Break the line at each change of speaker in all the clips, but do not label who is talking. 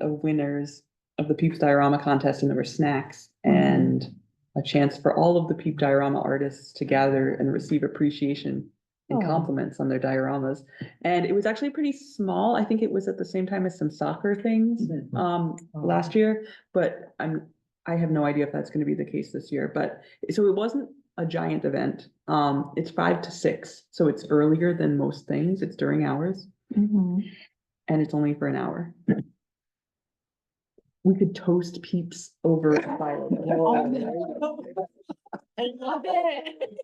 of winners of the Peeps Diorama contest, and there were snacks
Mm-hmm.
and a chance for all of the Peep Diorama artists to gather and receive appreciation and
Oh.
compliments on their dioramas. And it was actually pretty small. I think it was at the same time as some soccer things um
Oh.
last year, but I'm, I have no idea if that's gonna be the case this year, but so it wasn't a giant event. Um, it's five to six, so it's earlier than most things. It's during hours
Mhm.
and it's only for an hour. We could toast peeps over a
Oh,
fire.
I love it.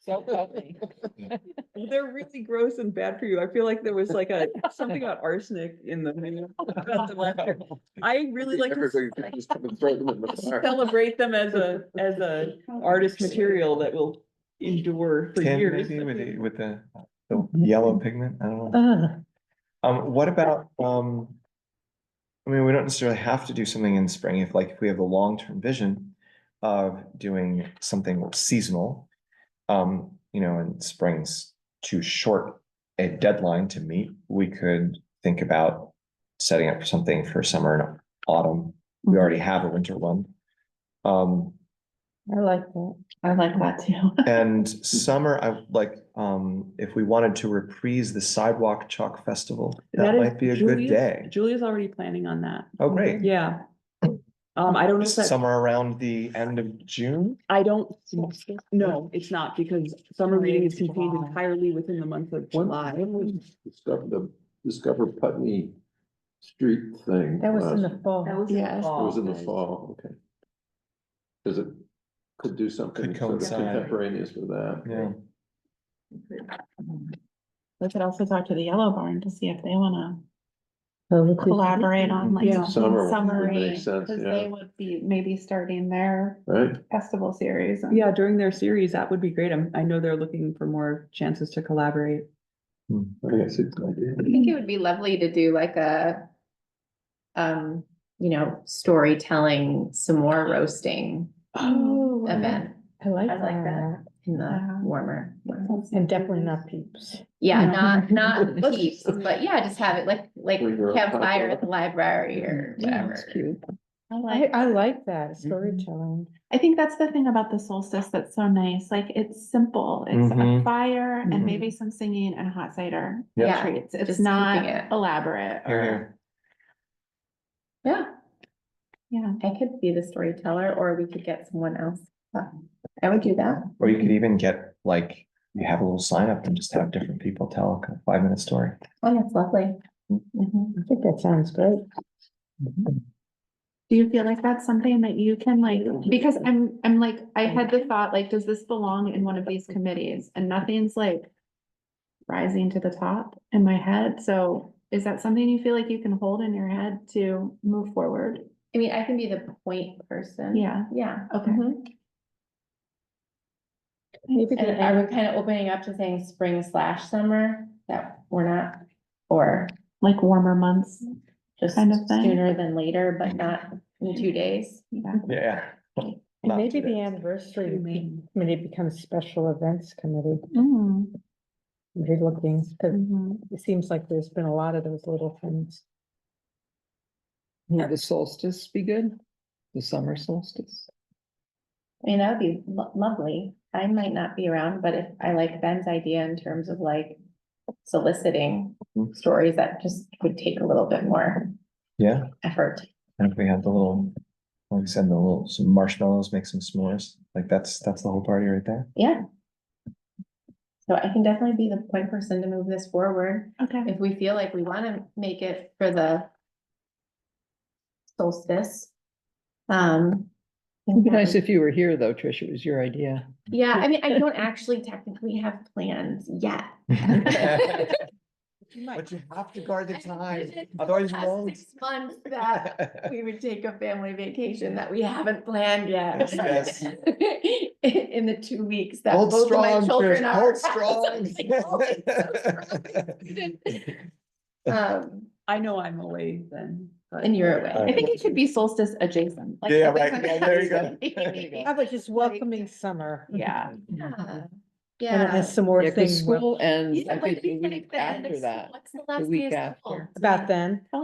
So funny.
They're really gross and bad for you. I feel like there was like a, something about arsenic in the menu. I really like to
Everybody can just come and throw them in the fire.
celebrate them as a, as
Uh,
a artist material that will endure for
Tan
years.
maybe with the, with the, the yellow pigment, I don't know.
Ah,
Um, what about, um, I mean, we don't necessarily have to do something in spring if like, if we have a long-term vision of doing something seasonal. Um, you know, and spring's too short a deadline to meet, we could think about setting up something for summer and autumn. We
Mm-hmm.
already have a winter one. Um,
I like that. I like that too.
and summer, I would like, um, if we wanted to reprise the Sidewalk Chalk Festival, that
That is
might be a good
Julia's-
day.
Julia's already planning on that.
Oh, great.
Yeah. Um, I don't know if that,
Somewhere around the end of June?
I don't, no, it's not because summer reading is contained
July.
entirely within the month of
When,
July.
when was Discover the, Discover Putney Street thing?
That was in
last-
the fall.
That was in the
Oh, Yes.
It was in the
fall.
fall, okay. Cause it could do something
Could
sort of
coincide.
contemporaneous with that.
Yeah.
We could also talk to the Yellow Barn to see if they wanna collaborate
Collaborate
on like.
Yeah.
something
Summer would
Summary,
make sense,
cause they
yeah.
would be maybe starting their
Right?
festival series. and-
Yeah, during their series, that would be great. I'm, I know they're looking for more chances to collaborate.
Hmm.
I guess it's an idea.
I think it would be lovely to do like a, um, you know, storytelling, some more roasting
Oh,
event
I like
I like that. in the
Wow.
warmer. weather.
And definitely not peeps.
Yeah,
Yeah.
not, not heaps, but yeah, just have it like, like
Bring your own
campfire
popcorn.
at the library or
Yeah,
whatever.
That's cute.
I
I,
like,
I like that storytelling.
I think that's the thing about the solstice that's so nice, like it's simple, it's a
Mm-hmm.
Mhm.
fire and
Mhm.
maybe some singing and hot cider.
Yeah.
Yeah,
Treats, it's
just keeping
not
it.
elaborate
Here,
or,
here.
Yeah,
yeah.
I could be the storyteller or we could get someone else. But I would do that.
Or you could even get like, you have a little sign up and just have different people tell a five minute story.
Oh, that's lovely. Mhm.
I think that sounds great.
Do you feel like that's something that you can like, because I'm, I'm like, I had the thought, like, does this belong in one of these committees? And nothing's like rising to the top in my head. So is that something you feel like you can hold in your head to move forward?
I mean, I can be the point person.
Yeah.
Yeah.
Okay.
Mhm.
Maybe
And
the-
are we kind of opening up to saying spring slash summer that we're not, or
Like warmer months?
just
Kind of thing.
sooner than later, but not in two days?
Yeah.
Yeah.
and
Not
maybe the
today.
anniversary be- committee becomes special events committee,
Mm,
relooking, 'cause
mhm.
it seems like there's been a lot of those little things.
Yeah, the solstice be good, the summer solstice.
I mean, that would be lo- lovely. I might not be around, but if I like Ben's idea in terms of like soliciting
Mhm.
stories that just would take a little bit more
Yeah,
effort.
and if we had the little, like I said, the little, some marshmallows, make some s'mores, like that's, that's the whole party right there.
Yeah. So I can definitely be the point person to move this forward.
Okay.
if we feel like we wanna make it for the solstice. Um.
It'd be nice if you were here, though, Trish, it was your idea.
Yeah, I mean, I don't actually technically have plans yet.
But you have to guard the time,
It's
otherwise you
past
won't.
Six months that we would take a family vacation that we haven't planned yet.
Yes.
In the two weeks that
Hold
both of my
strong,
children
Trish,
are. oh,
hold
strong.
strong.
Um,
I know I'm away then. but-
and you're away.
I think it should be solstice adjacent. like
Yeah,
something
right,
like
yeah,
that.
there you go,
How about just welcoming summer?
Yeah.
Yeah.
And
Yeah.
then some more
Yeah, 'cause
things
school ends,
Yeah,
I think,
like
the
it's like
week
the end of
after
school.
that.
What's the last Oh.
week
day of school?
after.
about then.